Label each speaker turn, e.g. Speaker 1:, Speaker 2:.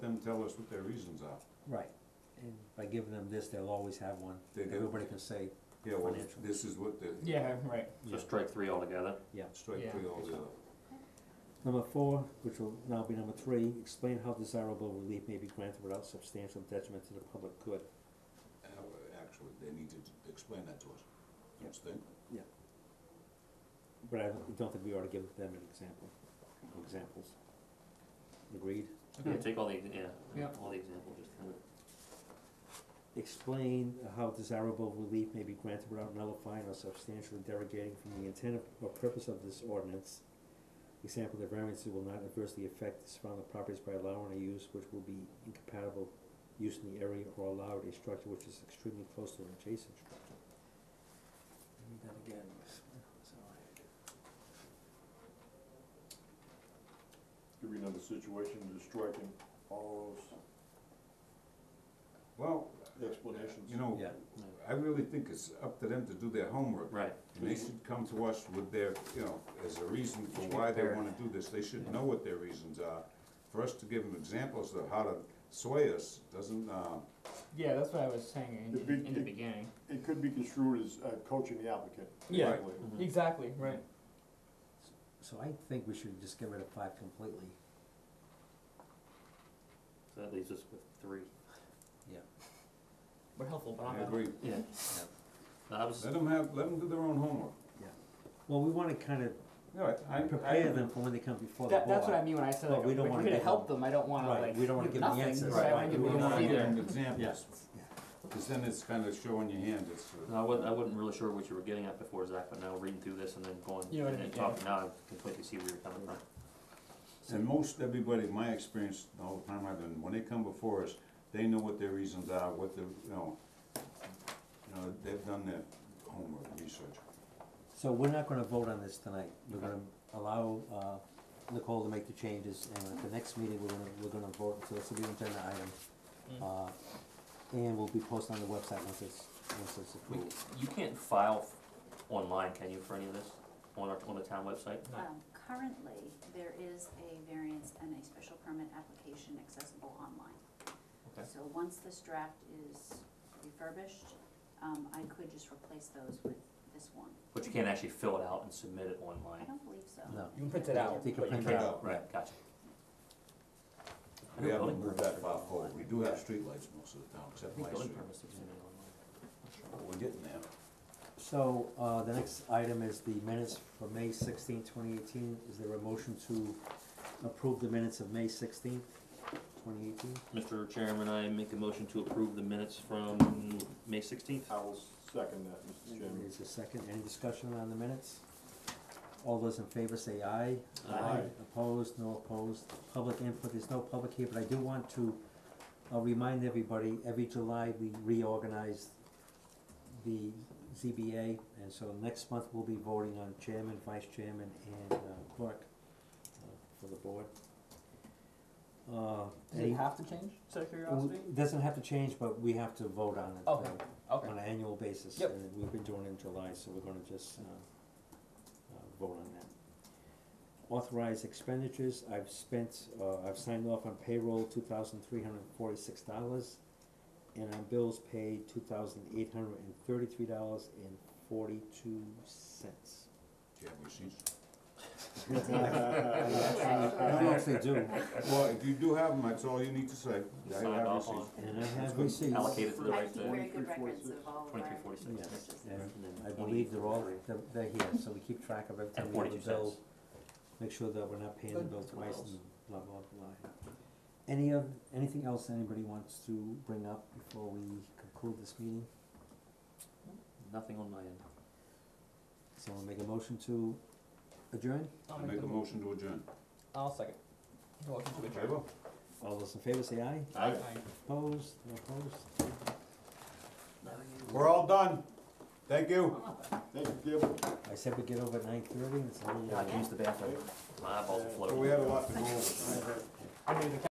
Speaker 1: them tell us what their reasons are.
Speaker 2: Right, and by giving them this, they'll always have one,
Speaker 1: They do.
Speaker 2: everybody can say,
Speaker 1: Yeah, well,
Speaker 2: Financial.
Speaker 1: this is what the,
Speaker 3: Yeah, right.
Speaker 4: So strike three altogether.
Speaker 1: strike
Speaker 3: Yeah.
Speaker 1: three all the,
Speaker 2: Number four, which will now be number three, explain how desirable relief may be granted without substantial detriment to the public good.
Speaker 1: uh, actually, they need to explain that to us, don't you think?
Speaker 2: But I don't- don't think we ought to give them an example, or examples. Agreed?
Speaker 4: Yeah,
Speaker 3: Okay.
Speaker 4: take all the, ex- yeah,
Speaker 3: Yeah.
Speaker 4: all the examples, just kind of.
Speaker 2: Explain how desirable relief may be granted without nullifying or substantially derogating from the intent of- or purpose of this ordinance. Example, the variances will not adversely affect the surrounding properties by allowing a use which will be incompatible use in the area or allowed a structure which is extremely close to an adjacent structure. Let me that again.
Speaker 5: Could be another situation, just striking all
Speaker 1: Well,
Speaker 5: those explanations.
Speaker 1: you know,
Speaker 2: Yeah.
Speaker 1: I really think it's up to them to do their homework.
Speaker 4: Right,
Speaker 1: And they should come to us with their, you know, as a reason for why they wanna do this, they should know what their reasons are. For us to give them examples of how to sway us, doesn't, uh,
Speaker 3: Yeah, that's what I was saying
Speaker 5: The
Speaker 3: in, in,
Speaker 5: big-
Speaker 3: in the
Speaker 5: the-
Speaker 3: beginning.
Speaker 5: It could be construed as uh, coaching the applicant.
Speaker 3: Yeah.
Speaker 5: frankly.
Speaker 4: mhm,
Speaker 3: Exactly, right.
Speaker 2: So I think we should just get rid of five completely.
Speaker 4: so that leaves us with three,
Speaker 3: We're helpful, but I'm
Speaker 1: I
Speaker 3: not.
Speaker 1: agree.
Speaker 4: yeah. No, I was,
Speaker 1: Let them have, let them do their own homework.
Speaker 2: Well, we wanna kind of
Speaker 1: All right, I, I.
Speaker 2: prepare them for when they come before the board.
Speaker 3: That, that's what I mean when I said
Speaker 2: Well,
Speaker 3: like,
Speaker 2: we don't
Speaker 3: we're
Speaker 2: wanna
Speaker 3: gonna
Speaker 2: give
Speaker 3: help
Speaker 2: them-
Speaker 3: them, I don't wanna
Speaker 2: right,
Speaker 3: like,
Speaker 2: we don't wanna
Speaker 3: do
Speaker 2: give them
Speaker 3: nothing,
Speaker 2: answers,
Speaker 3: but I
Speaker 4: right,
Speaker 3: wanna
Speaker 4: we
Speaker 3: give
Speaker 1: We
Speaker 3: them
Speaker 1: don't
Speaker 3: an
Speaker 1: wanna give
Speaker 3: idea.
Speaker 1: them examples,
Speaker 2: Yeah.
Speaker 1: cause then it's kinda showing your hand, it's, uh,
Speaker 4: no, I wasn't, I wasn't really sure what you were getting at before, Zach, but now reading through this and then going,
Speaker 3: You know what I
Speaker 4: and then
Speaker 3: mean, yeah.
Speaker 4: talking, now I completely see where you're coming from.
Speaker 1: And most everybody, my experience, all the time I've been, when they come before us, they know what their reasons are, what the, you know, you know, they've done their homework, research.
Speaker 2: So we're not gonna vote on this tonight, we're gonna allow, uh, Nicole to make the changes, and at the next meeting, we're gonna, we're gonna vote, so this will be an agenda item. Uh, and will be posted on the website once it's, once it's
Speaker 4: We,
Speaker 2: approved.
Speaker 4: you can't file f- online, can you, for any of this, on our, on the town website?
Speaker 6: Um, currently, there is a variance and a special permit application accessible online.
Speaker 4: Okay.
Speaker 6: So once this draft is refurbished, um, I could just replace those with this one.
Speaker 4: But you can't actually fill it out and submit it
Speaker 6: I
Speaker 4: online,
Speaker 6: don't believe so.
Speaker 2: No.
Speaker 3: You can print it out,
Speaker 2: They can
Speaker 4: but you
Speaker 2: print
Speaker 4: can't,
Speaker 2: it
Speaker 1: out.
Speaker 4: right, gotcha. I
Speaker 1: We
Speaker 4: know
Speaker 1: haven't
Speaker 4: building
Speaker 1: moved
Speaker 4: permits
Speaker 1: that
Speaker 4: are
Speaker 1: far
Speaker 4: done
Speaker 1: forward,
Speaker 4: online.
Speaker 1: we do have streetlights most of the town,
Speaker 4: I
Speaker 1: except
Speaker 4: think
Speaker 1: my
Speaker 4: building
Speaker 1: street,
Speaker 4: permits are submitted online.
Speaker 1: but we're getting there.
Speaker 2: So, uh, the next item is the minutes for May 16, 2018. is there a motion to approve the minutes of May sixteenth, twenty eighteen?
Speaker 4: Mr. Chairman, I make a motion to approve the minutes from May sixteenth.
Speaker 5: I will second that, Mr. Chairman.
Speaker 2: Is there a second, any discussion on the minutes? All those in favor say aye.
Speaker 4: Aye.
Speaker 2: Opposed, no opposed, public input, there's no public here, but I do want to, uh remind everybody, every July, we reorganize the ZBA, and so next month, we'll be voting on chairman, vice chairman, and uh, clerk uh, for the board. Uh,
Speaker 3: does it
Speaker 2: any-
Speaker 3: have to change, Mm-hmm. out of curiosity?
Speaker 2: it doesn't have to change, but we have to vote on it.
Speaker 3: Okay.
Speaker 2: uh,
Speaker 3: Okay,
Speaker 2: on an annual basis,
Speaker 3: Yep.
Speaker 2: and we've been doing it in July, so we're gonna just, uh, uh, vote on that. Authorized expenditures, I've spent, uh, I've signed off on payroll, two thousand three hundred and forty-six dollars, and on bills paid, two thousand eight hundred and thirty-three dollars and forty-two cents.
Speaker 1: Do you have receipts?
Speaker 2: I don't actually do,
Speaker 1: Well, if you do have them, that's all you need to say, I
Speaker 4: Signed
Speaker 1: have
Speaker 4: off on.
Speaker 1: receipts.
Speaker 2: and I have
Speaker 1: good.
Speaker 2: receipts.
Speaker 4: Allocated to the
Speaker 6: I
Speaker 4: right
Speaker 6: keep very
Speaker 4: thing.
Speaker 6: good records of all of our
Speaker 4: Twenty-three forty-six.
Speaker 2: Yes.
Speaker 6: purchases.
Speaker 2: Yeah.
Speaker 4: And then
Speaker 2: I
Speaker 4: 20,
Speaker 2: believe they're all,
Speaker 4: 43.
Speaker 2: they're, they're here, so we keep track of every time
Speaker 4: And
Speaker 2: we have a
Speaker 4: 42
Speaker 2: bill,
Speaker 4: cents.
Speaker 2: make sure that we're not paying the
Speaker 3: Good.
Speaker 2: bill twice
Speaker 4: else?
Speaker 2: and blah, blah, blah. Any of, anything else anybody wants to bring up before we conclude this meeting?
Speaker 4: Nothing on my end.
Speaker 2: Someone make a motion to adjourn?
Speaker 3: I'll
Speaker 1: I make a
Speaker 3: the-
Speaker 1: motion to adjourn.
Speaker 3: I'll second. You're welcome to adjourn.
Speaker 1: Favor?
Speaker 2: All those in favor say aye,
Speaker 3: Aye.
Speaker 2: opposed, no opposed?
Speaker 1: We're all done, thank you.
Speaker 5: Thank you, Gable.
Speaker 2: I said we get over at nine thirty, and it's a little.
Speaker 4: God, use the bathroom. My eyeballs are
Speaker 1: Well,
Speaker 4: floating.
Speaker 1: we had a lot to go over.
Speaker 3: I mean, the